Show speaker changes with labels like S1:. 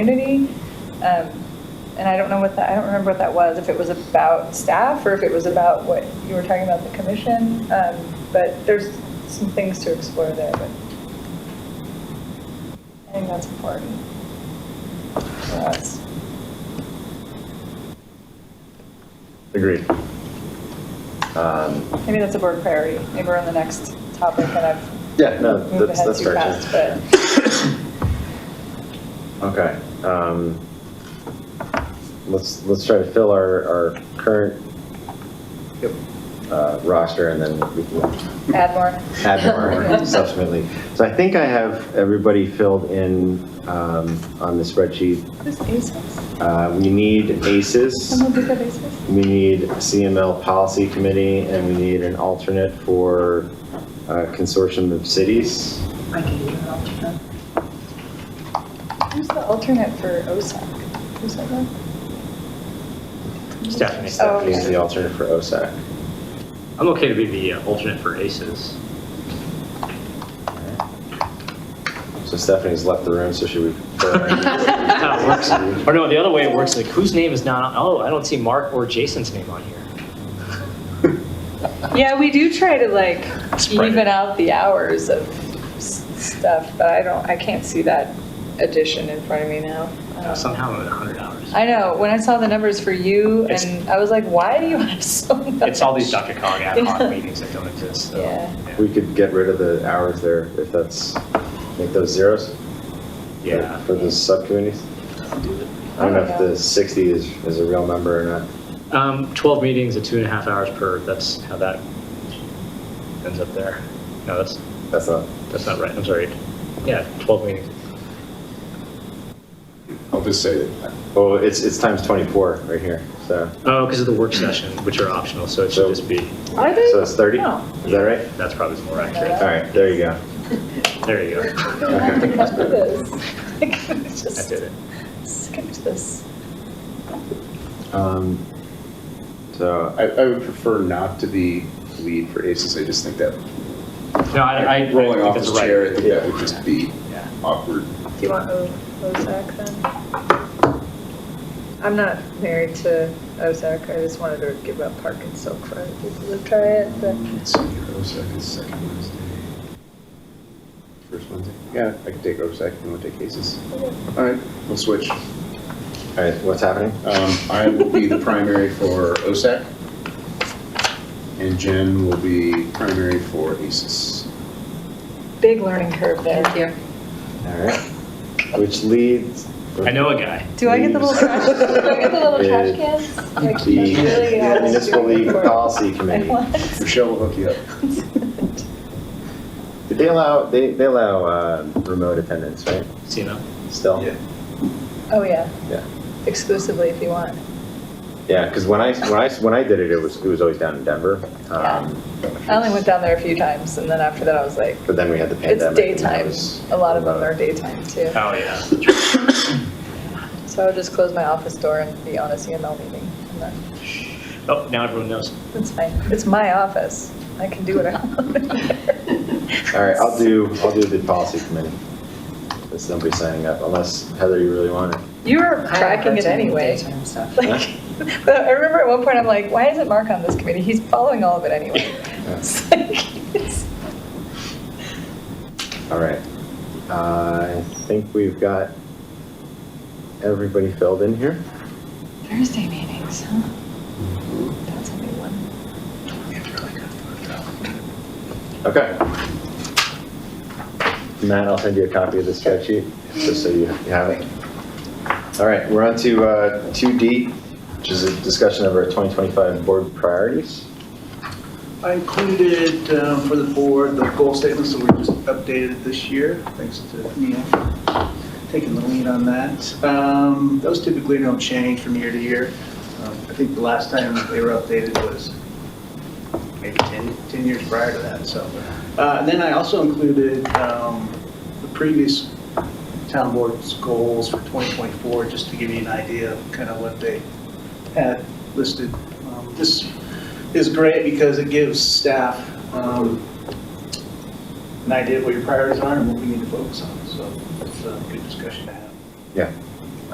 S1: community. Um, And I don't know what that, I don't remember what that was, if it was about staff or if it was about what you were talking about, the commission. Um, But there's some things to explore there, but I think that's important for us.
S2: Agreed. Um,
S1: Maybe that's a board priority. Maybe we're on the next topic and I've
S2: Yeah, no,
S1: moved
S2: that's,
S1: ahead
S2: that's
S1: too
S2: fair.
S1: fast,
S2: too.
S1: but.
S2: Okay. um, Let's, let's try to fill our, our current uh, roster and then we can
S1: Add more.
S2: add more subsequently. So I think I have everybody filled in um, on the spreadsheet.
S1: Who's ACES?
S2: Uh, We need ACES,
S1: Someone pick up ACES?
S2: we need CML Policy Committee, and we need an alternate for uh, Consortium of Cities.
S3: I can do an alternate.
S1: Who's the alternate for OSAC? Who's that one?
S4: Stephanie.
S1: Oh,
S2: We need
S1: okay.
S2: the alternate for OSAC.
S4: I'm okay to be the uh, alternate for aces.
S2: So Stephanie's left the room, so should we?
S4: That's how it works. Or no, the other way it works, like whose name is not, oh, I don't see Mark or Jason's name on here.
S1: Yeah, we do try to like
S4: Spread it.
S1: even out the hours of s- stuff, but I don't, I can't see that addition in front of me now. I
S4: Uh,
S1: don't know.
S4: Somehow I'm at 100 hours.
S1: Oh. I know, when I saw the numbers for you
S4: It's-
S1: and I was like, why do you have so much?
S4: It's all these Dr. Cog ad
S1: Yeah.
S4: hoc meetings that don't exist, so.
S1: Yeah.
S2: We could get rid of the hours there if that's, make those zeros
S4: Yeah.
S2: for the subcommittees. I don't know if the 60 is, is a real number or not.
S4: Um, 12 meetings at two and a half hours per, that's how that ends up there. No, that's,
S2: That's not,
S4: that's not right, I'm sorry. Yeah, 12 meetings.
S5: I'll just say that
S2: well, it's, it's times 24 right here, so,
S4: Oh, because of the work session, which are optional, so it should
S2: So-
S4: just be,
S1: Are they?
S2: so it's 30? Is
S1: No.
S2: that right?
S4: that's probably more accurate.
S2: All right, there you go.
S4: There you go.
S1: I have to come to this.
S4: I
S1: Just
S4: did it.
S1: skip to this.
S2: Um, So,
S5: I, I would prefer not to be lead for aces. I just think that
S4: No, I, I. I
S5: rolling
S4: think
S5: off
S4: that's
S5: his
S4: right.
S5: chair, I think that
S2: Yeah.
S5: would just be
S4: Yeah.
S5: awkward.
S1: Do you want O- OSAC then? I'm not married to OSAC, I just wanted to give up Park and Silk for other people to try it, but.
S5: It's on your OSAC is oh, second Wednesday. First Wednesday? Yeah, I can take OSAC if you want to take aces. All right, we'll switch.
S2: all right, what's happening?
S5: Um, I will be the primary for OSAC. And Jen will be primary for aces.
S1: Big learning curve there.
S2: All right, which leads.
S4: I know a guy.
S1: Do I get the little trash, do I get the little trash
S2: Leaves.
S1: cans? Like, that's
S2: The
S1: really all I'm
S2: Municipal
S1: doing
S2: League
S1: for-
S2: Policy
S1: I
S2: Committee.
S1: want.
S5: Michelle will hook you up.
S2: Did They allow, they, they allow uh, remote attendance, right?
S4: See you know?
S2: Still?
S1: Oh, yeah,
S2: Yeah.
S1: exclusively if you want.
S2: Yeah, because when I, when I, when I did it, it was, it was always down in Denver. Um,
S1: I only went down there a few times, and then after that, I was like,
S2: But then we had the
S1: it's
S2: pandemic. and that
S1: daytime,
S2: was-
S1: a lot of them are daytime too.
S4: Oh, yeah.
S1: So I would just close my office door and be on a CML meeting, and then
S4: Oh, now everyone knows.
S1: That's fine. It's my office. I can do what I want.
S2: All right, I'll do, I'll do the policy committee. There's nobody signing up unless Heather, you really want it.
S1: You were tracking it anyway. Like, but I remember at one point, I'm like, why isn't Mark on this committee? He's following all of it anyway. It's like, it's-
S2: All right. Uh, I think we've got everybody filled in here.
S1: Thursday meetings, huh? That's a new one.
S2: Okay. Matt, I'll send you a copy of the spreadsheet, just so you you have it. All right, we're on to uh, 2D, which is a discussion of our 2025 board priorities.
S6: I included um, for the board the goal statements that were just updated this year, thanks to Mia for taking the lead on that. Um, Those typically don't change from year to year. Um, I think the last time they were updated was maybe 10, 10 years prior to that, so. Uh, And then I also included um, the previous town board's goals for 2024, just to give you an idea of kind of what they had listed. Um, This is great because it gives staff um, an idea of what your priorities are and what we need to focus on, so it's a good discussion to have.
S2: Yeah.